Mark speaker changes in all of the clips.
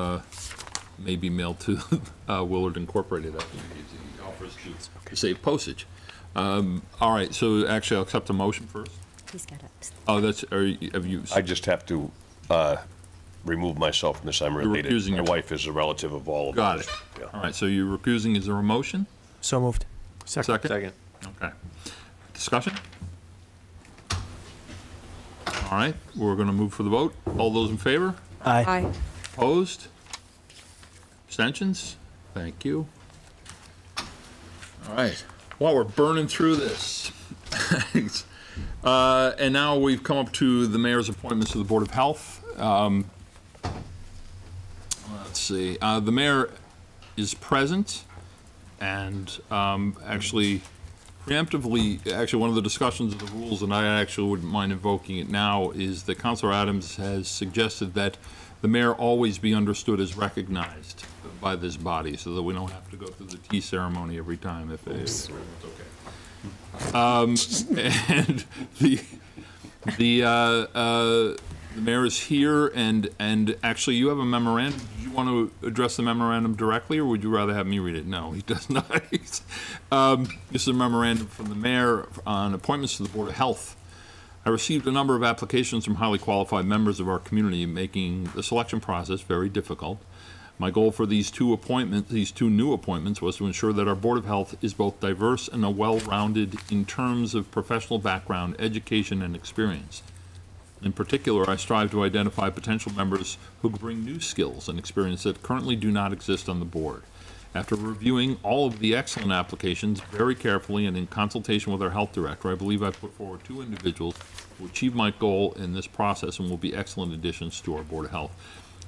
Speaker 1: uh, may be mailed to uh, Willard Incorporated. I think it offers to save postage. Um, All right, so actually, I'll accept the motion first.
Speaker 2: He's got it.
Speaker 1: Oh, that's, are you- have you,
Speaker 3: I just have to uh, remove myself from this. I'm related.
Speaker 1: recusing
Speaker 3: My
Speaker 1: yourself.
Speaker 3: wife is a relative of all of
Speaker 1: got
Speaker 3: us.
Speaker 1: it. All right, so you're recusing, is there a motion?
Speaker 4: So moved.
Speaker 1: Second? Okay. Discussion? All right, we're going to move for the vote. All those in favor?
Speaker 4: Aye.
Speaker 1: Opposed? Abstentions? Thank you. All right, well, we're burning through this. Thanks. Uh, And now we've come up to the mayor's appointments to the Board of Health. Um, Let's see, uh, the mayor is present, and um, actually preemptively, actually, one of the discussions of the rules, and I actually wouldn't mind invoking it now, is that Counselor Adams has suggested that the mayor always be understood as recognized by this body, so that we don't have to go through the tea ceremony every time if it's okay. Um, And the, the, uh, uh, the mayor is here, and, and actually, you have a memorandum. Do you want to address the memorandum directly, or would you rather have me read it? No, he does not. He's- um, This is a memorandum from the mayor on appointments to the Board of Health. I received a number of applications from highly qualified members of our community, making the selection process very difficult. My goal for these two appointments, these two new appointments, was to ensure that our Board of Health is both diverse and well-rounded in terms of professional background, education, and experience. In particular, I strive to identify potential members who bring new skills and experience that currently do not exist on the board. After reviewing all of the excellent applications very carefully and in consultation with our health director, I believe I put forward two individuals who achieve my goal in this process and will be excellent additions to our Board of Health.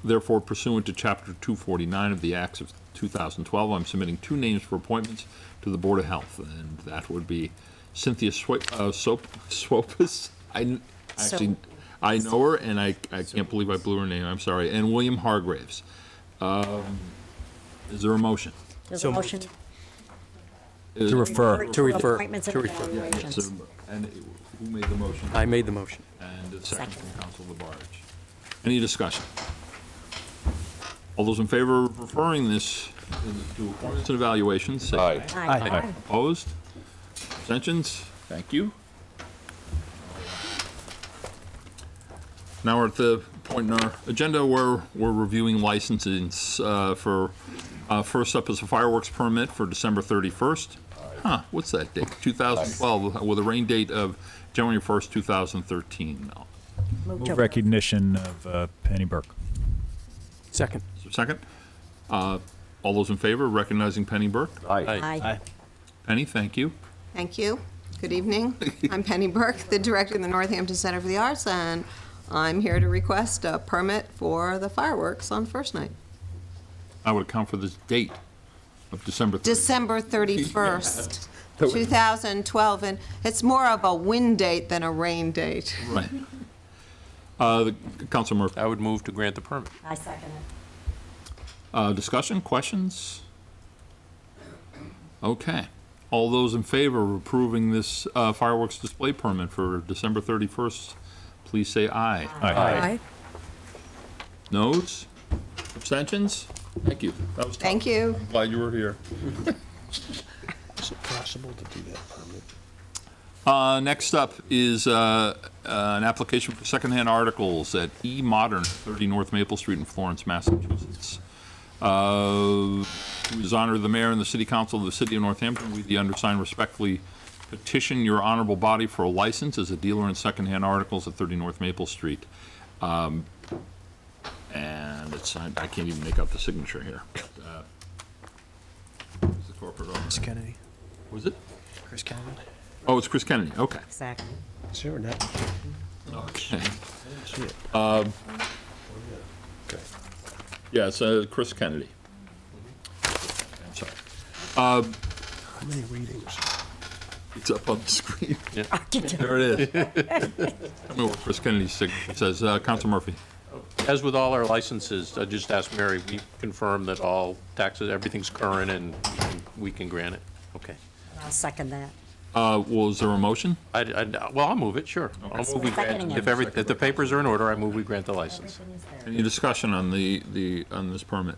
Speaker 1: Therefore, pursuant to Chapter 249 of the Acts of 2012, I'm submitting two names for appointments to the Board of Health, and that would be Cynthia Swi- uh, Sop- Swopis. I n- actually,
Speaker 2: Sop-
Speaker 1: I know her, and I, I can't believe I blew her name, I'm sorry, and William Hargraves. Um, Is there a motion?
Speaker 2: There's
Speaker 4: So
Speaker 2: a
Speaker 4: moved.
Speaker 2: motion.
Speaker 4: To refer.
Speaker 2: for
Speaker 4: To refer.
Speaker 2: Appointments and
Speaker 4: To refer.
Speaker 1: Is there-
Speaker 2: evaluations.
Speaker 1: And who made the motion?
Speaker 4: I made the motion.
Speaker 1: And a second
Speaker 2: Second.
Speaker 1: from Council Labarge. Any discussion? All those in favor of referring this to appointments and evaluations, say
Speaker 3: Aye.
Speaker 4: Aye.
Speaker 2: Aye.
Speaker 1: Opposed? Abstentions? Thank you. Now we're at the point in our agenda where we're reviewing licenses uh, for, uh, first up is a fireworks permit for December 31st. Huh, what's that date? 2012, with a rain date of January 1st, 2013.
Speaker 2: Move to-
Speaker 5: Move recognition of uh, Penny Burke.
Speaker 4: Second.
Speaker 1: Is there a Second? Uh, All those in favor recognizing Penny Burke?
Speaker 3: Aye.
Speaker 2: Aye.
Speaker 1: Penny, thank you.
Speaker 6: Thank you. Good evening. I'm Penny Burke, the director of the Northampton Center for the Arts, and I'm here to request a permit for the fireworks on first night,
Speaker 1: I would account for this date of December 31st.
Speaker 6: December 31st, 2012, and it's more of a wind date than a rain date.
Speaker 1: Right. Uh, the- Council Murphy,
Speaker 7: I would move to grant the permit.
Speaker 2: I second it.
Speaker 1: uh, discussion, questions? Okay. All those in favor of approving this uh, fireworks display permit for December 31st, please say aye.
Speaker 2: Aye.
Speaker 1: Noes? Abstentions? Thank you. That was tough.
Speaker 6: Thank you.
Speaker 1: I'm Glad you were here.
Speaker 3: Is it possible to do that permit?
Speaker 1: Uh, next up is, uh, uh, an application for secondhand articles at E Modern, 30 North Maple Street in Florence, Massachusetts. Uh, who is honor of the mayor and the city council of the city of Northampton, we, the undersigned, respectfully petition your honorable body for a license as a dealer in secondhand articles at 30 North Maple Street. Um, and it's, I I can't even make out the signature here. Uh, it's the corporate owner.
Speaker 4: Kennedy.
Speaker 1: Was it?
Speaker 4: Chris Kennedy.
Speaker 1: Oh, it's Chris Kennedy, okay.
Speaker 2: Exactly.
Speaker 3: Is there an application?
Speaker 1: Okay.
Speaker 3: see it.
Speaker 1: Um,
Speaker 3: Okay.
Speaker 1: Yeah, it's uh, Chris Kennedy. I'm sorry. Um,
Speaker 3: How many readings?
Speaker 1: It's up on the screen.
Speaker 2: Architect.
Speaker 1: There it is. Tell me what Chris Kennedy's signature says. Uh, Counsel Murphy.
Speaker 7: As with all our licenses, I just asked Mary, we confirm that all taxes, everything's current and we can- we can grant it. Okay.
Speaker 2: I'll second that.
Speaker 1: Uh, was there a motion?
Speaker 7: I, I, well, I'll move it, sure. I'll move we
Speaker 2: Seconding
Speaker 7: grant,
Speaker 2: it.
Speaker 7: if every, if the papers are in order, I move we grant the license.
Speaker 2: Everything is there.
Speaker 1: Any discussion on the, the, on this permit?